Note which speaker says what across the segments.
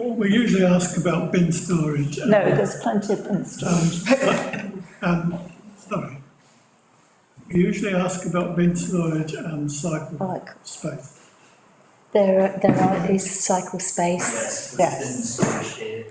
Speaker 1: we usually ask about bin storage. and-
Speaker 2: No, there's plenty of bin storage.
Speaker 1: Um, sorry. We usually ask about bin storage and cycle
Speaker 2: Like,
Speaker 1: space.
Speaker 2: there, are- there are, is cycle space.
Speaker 3: Yes,
Speaker 2: Yes.
Speaker 3: there's been storage here,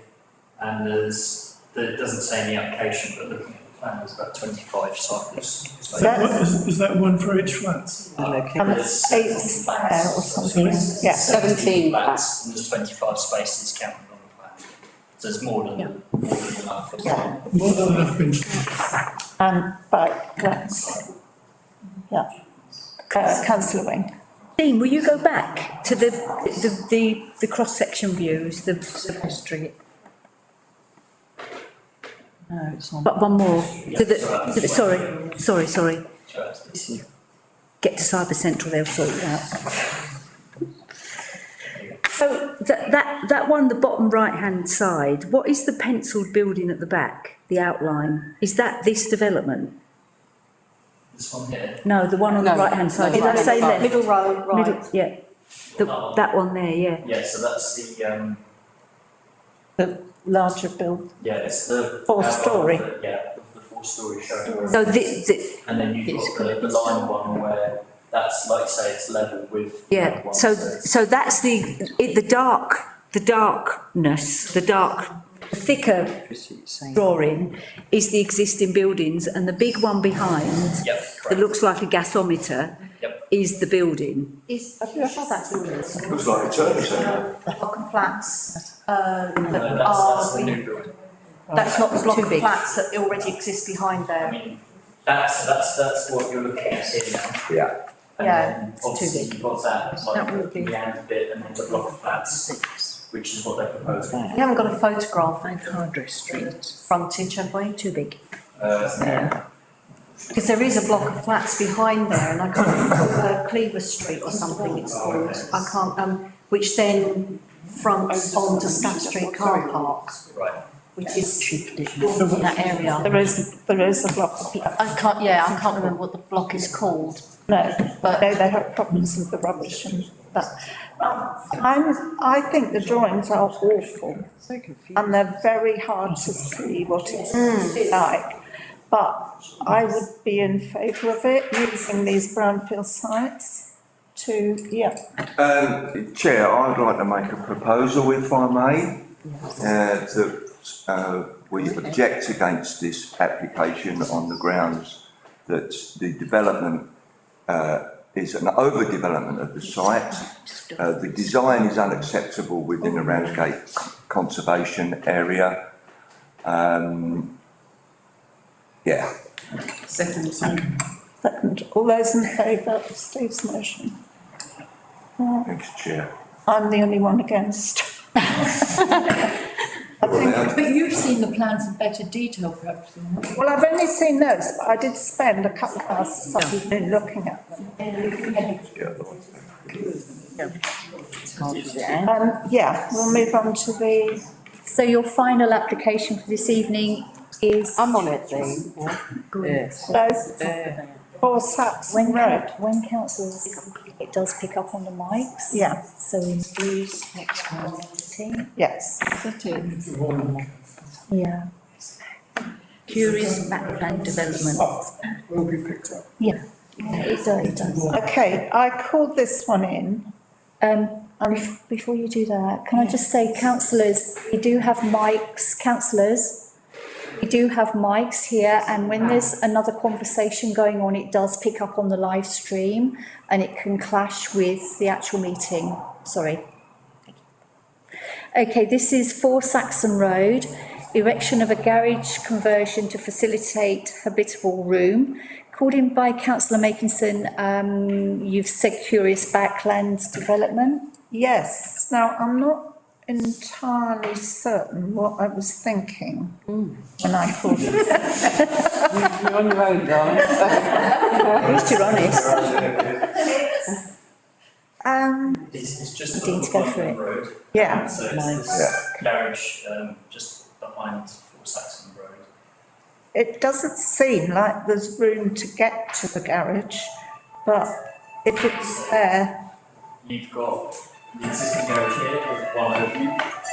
Speaker 3: and there's, there it doesn't say in the application, but looking at the plan, there's about twenty-five cycles.
Speaker 1: Is that
Speaker 2: That's-
Speaker 1: one- Is is that one for each flat?
Speaker 4: Oh,
Speaker 2: And
Speaker 3: There's
Speaker 2: it's um, eight
Speaker 3: seventeen
Speaker 2: square or
Speaker 3: flats.
Speaker 2: something,
Speaker 3: There's
Speaker 2: yeah.
Speaker 5: 17
Speaker 3: flats, And there's twenty-five spaces counted on the plan, so there's more than, more than enough. for
Speaker 2: Yeah.
Speaker 1: More than enough bin storage.
Speaker 2: And, right, that's, um, yeah. Uh, councillor Wing,
Speaker 4: Dean, will you go back to the, the, the, the cross-section views, the, the street?
Speaker 2: no, it's on.
Speaker 4: But one more, to
Speaker 3: Yeah,
Speaker 4: the, to the, sorry, sorry, sorry,
Speaker 3: Interesting.
Speaker 4: get to Cyber Central, they'll sort it out. So that, that, that one, the bottom right-hand side, what is the penciled building at the back, the outline? Is that this development?
Speaker 3: This one here,
Speaker 4: No, the one on the
Speaker 5: No,
Speaker 4: right-hand side,
Speaker 5: no,
Speaker 4: did I
Speaker 5: right-hand
Speaker 4: say
Speaker 5: side.
Speaker 4: left?
Speaker 6: Middle row,
Speaker 4: Middle,
Speaker 6: right.
Speaker 4: yeah, the, that one there, yeah.
Speaker 3: yeah, so that's the, um,
Speaker 2: The larger build,
Speaker 3: yeah, it's the.
Speaker 2: Fourth
Speaker 3: outline of
Speaker 2: storey.
Speaker 3: the- Yeah, the- the four-storey showroom.
Speaker 4: So the, the,
Speaker 3: And then you've
Speaker 5: It's
Speaker 3: got the, the line one where that's like say it's level with. line
Speaker 4: Yeah,
Speaker 3: one,
Speaker 4: so,
Speaker 3: it's-
Speaker 4: so that's the, it, the dark, the darkness, the dark, thicker drawing is the existing buildings and the big one behind
Speaker 3: Yep,
Speaker 4: that
Speaker 3: correct.
Speaker 4: looks like a gasometer
Speaker 3: Yep.
Speaker 4: is the building.
Speaker 6: Is, have you ever had that building?
Speaker 7: Looks like a church, doesn't it?
Speaker 6: Block and flats, uh,
Speaker 3: No,
Speaker 6: that
Speaker 3: that's, that's the
Speaker 6: are,
Speaker 3: new building.
Speaker 6: that's not the block
Speaker 4: Too
Speaker 6: and
Speaker 4: big.
Speaker 6: flats that already exist behind
Speaker 3: I
Speaker 6: there.
Speaker 3: mean, that's, that's, that's what you're looking at here now.
Speaker 7: Yeah.
Speaker 3: And
Speaker 6: Yeah,
Speaker 3: then obviously you've got that,
Speaker 6: That would
Speaker 3: like
Speaker 6: be-
Speaker 3: the end bit and then the block of flats, which is what they're proposing.
Speaker 6: We haven't got a photograph
Speaker 5: And Hardrow Street.
Speaker 6: frontage, have we? Too big.
Speaker 3: Uh,
Speaker 6: Because there is a block of flats behind there and I can't remember, uh, Cleaver Street or something it's
Speaker 7: Oh,
Speaker 6: called. I can't, um, which then fronts onto Staff Street car park,
Speaker 3: right,
Speaker 6: which is in that area.
Speaker 2: There is, there is a block of, flats.
Speaker 6: I can't, yeah, I can't remember what the block is called.
Speaker 2: no,
Speaker 6: But-
Speaker 2: but they, they have problems with the rubbish and that. Um, I'm, I think the drawings are awful.
Speaker 5: So confused.
Speaker 2: and they're very hard to see what it's like. But I would be in favour of it, using these brownfield sites to, yeah,
Speaker 7: Um, Chair, I'd like to make a proposal if I may, uh, that, uh, we object against this application on the grounds that the development, uh, is an overdevelopment of the site. Uh, the design is unacceptable within the Ramsgate Conservation Area. Um, yeah,
Speaker 5: Second.
Speaker 2: second, all those in favour of Steve's motion?
Speaker 7: thanks, Chair.
Speaker 2: I'm the only one against. I think,
Speaker 8: But you've seen the plans in better detail perhaps than we
Speaker 2: well, I've only seen those, but I did spend a couple of hours Saturday looking at them. Um, yeah, we'll move on to the,
Speaker 8: So your final application for this evening is?
Speaker 5: I'm on it, Dean. Yes.
Speaker 2: those
Speaker 5: There.
Speaker 2: four Saxon
Speaker 8: When,
Speaker 2: Road.
Speaker 8: coun- when councils, it does pick up on the mics.
Speaker 2: Yeah,
Speaker 8: So in Blue's next meeting.
Speaker 2: yes.
Speaker 8: Yeah.
Speaker 4: Curious map plan development.
Speaker 1: Will be picked up.
Speaker 8: Yeah, it does, it does.
Speaker 2: Okay, I called this one in.
Speaker 8: Um, bef- before you do that, can I just say councillors, we do have mics, councillors. We do have mics here and when there's another conversation going on, it does pick up on the live stream and it can clash with the actual meeting, sorry. Okay, this is for Saxon Road, erection of a garage conversion to facilitate habitable room. Called in by councillor Makinson, um, you've said curious backland development.
Speaker 2: Yes, now I'm not entirely certain what I was thinking when I called it.
Speaker 5: You're on your own, darling.
Speaker 4: At least you're honest.
Speaker 2: Um,
Speaker 3: it's, it's just
Speaker 8: Dean,
Speaker 3: the
Speaker 8: to go
Speaker 3: one
Speaker 8: through it.
Speaker 3: road.
Speaker 2: yeah,
Speaker 3: So it's this garage, um, just behind Four Saxon Road.
Speaker 2: it doesn't seem like there's room to get to the garage, but if it's there,
Speaker 3: You've got the existing garage here with one opening,